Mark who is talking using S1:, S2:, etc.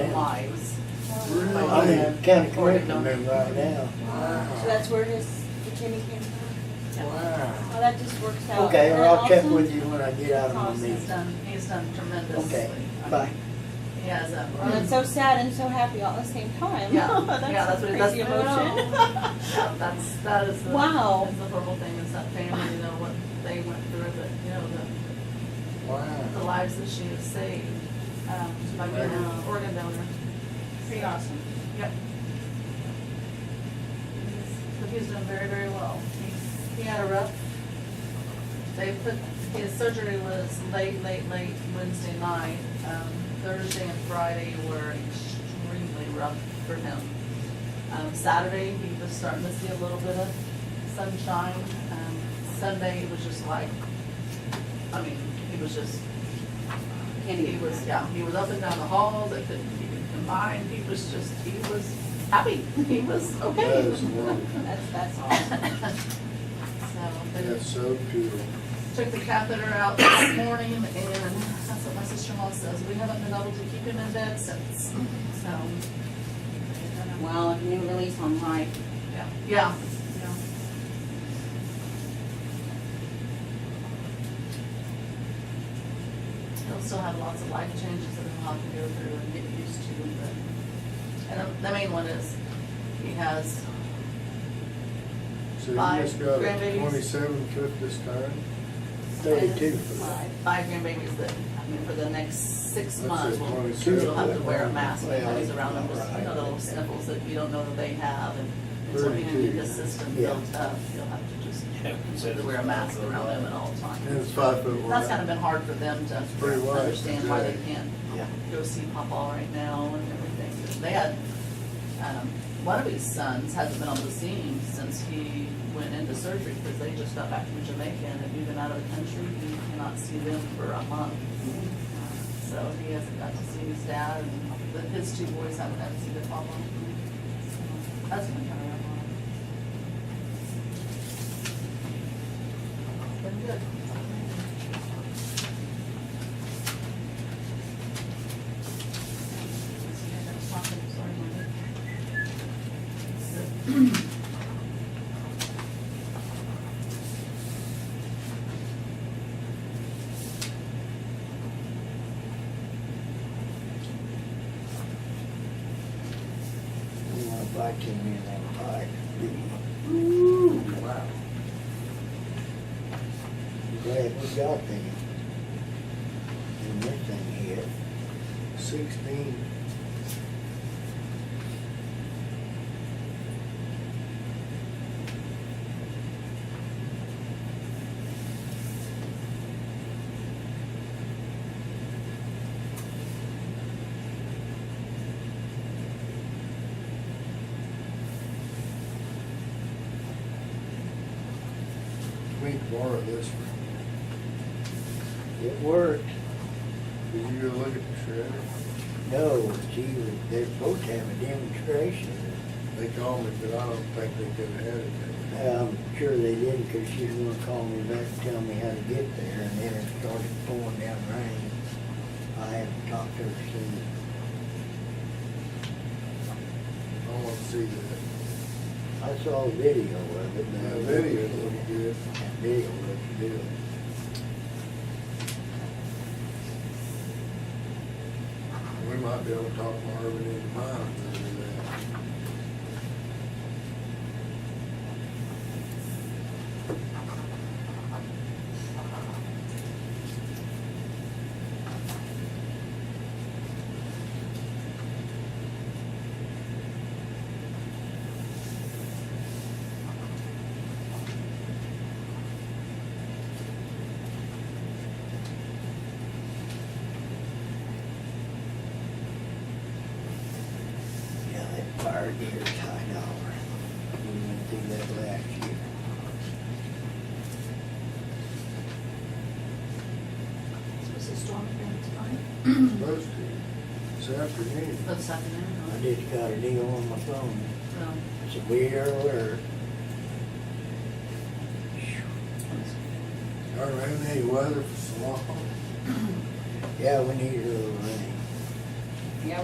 S1: lives.
S2: I'm in the county commission there right now.
S3: So that's where his attorney came from?
S2: Wow.
S3: Well, that just works out.
S2: Okay,
S3: And
S2: or I'll check
S3: also,
S2: with you when I get out of my
S1: Tom's has
S2: meeting.
S1: done, he's done tremendously.
S2: Okay, bye.
S1: He has a.
S3: Well, it's so sad and so happy all at the same time.
S1: Yeah, yeah,
S3: That's
S1: that's
S3: a
S1: what, that's.
S3: crazy
S1: I know.
S3: emotion.
S1: That's, that is the.
S3: Wow.
S1: That's the horrible thing, is that family, you know, what they went through, but, you know, the, the
S2: Wow.
S1: lives that she has saved, um, by being an organ donor.
S3: Pretty awesome.
S1: Yep. But he's done very, very well. He's- He had a rough, they put, his surgery was late, late, late Wednesday night. Um, Thursday and Friday were extremely rough for him. Um, Saturday, he was starting to see a little bit of sunshine. Um, Sunday, it was just like, I mean, he was just he was, yeah, he was up and down the halls, they couldn't, he could combine, he was just, he was happy, he was
S4: That
S1: okay.
S4: is wonderful.
S3: That's, that's awesome.
S1: So, they
S4: That's so cool.
S1: took the catheter out this morning, and that's what my sister-in-law says, we haven't been able to keep him in bed since, so.
S3: Wow, a new release on life.
S1: Yeah, yeah, yeah. He'll still have lots of life changes that he'll have to go through and get used to, but, and the- the main one is, he has,
S4: So you
S1: Five
S4: just got a
S1: grandbabies.
S4: twenty-seven foot this time?
S2: Thirty-two foot.
S1: five grandbabies that, I mean, for the next six
S4: That's
S1: months,
S4: it,
S1: will
S4: 22.
S1: he'll have to wear a mask
S2: Well,
S1: when he's around them, just, you know,
S2: right.
S1: the little sniffles that you don't know that they have, and it's only gonna get the system
S2: Yeah.
S1: built up, he'll have to just,
S5: Yeah,
S1: have to wear a mask around them at all times.
S4: And it's five foot
S1: That's kind of
S4: wide.
S1: been hard for them to
S4: pretty wide.
S1: understand why they can't
S2: Yeah.
S1: go see Papa right now and everything. They had, um, one of his sons hasn't been on the scene since he went into surgery because they just got back from Jamaica and have been out of the country. He cannot see them for a month. So he hasn't got to see his dad and the- his two boys haven't got to see their Papa. So That's been kind of rough. It's Been good.
S2: You wanna bite you in that pie? Wow. Glad we got them. And this thing here,
S4: Sixteen. We can borrow this one.
S2: it worked.
S4: Did you go look at the shredder?
S2: No, she was, they're supposed to have a demonstration.
S4: They called me, but I don't think they could have had it.
S2: I'm sure they did, cause she was gonna call me back and tell me how to get there, and then it started pouring down rain. I haven't talked to her since.
S4: I want to see that.
S2: I saw a video of it. but-
S4: That video looked good.
S2: That video looked good.
S4: We might be able to talk Marvin into mine into that.
S2: Yeah, that fire gear's high dollar. We went through that last year.
S1: Supposed to storm again tonight?
S4: Supposed to. This afternoon.
S1: This afternoon,
S2: I just got a deal on my phone.
S1: huh?
S2: It's a weird alert.
S4: I haven't had any weather for so long.
S2: Yeah, we need a little rain.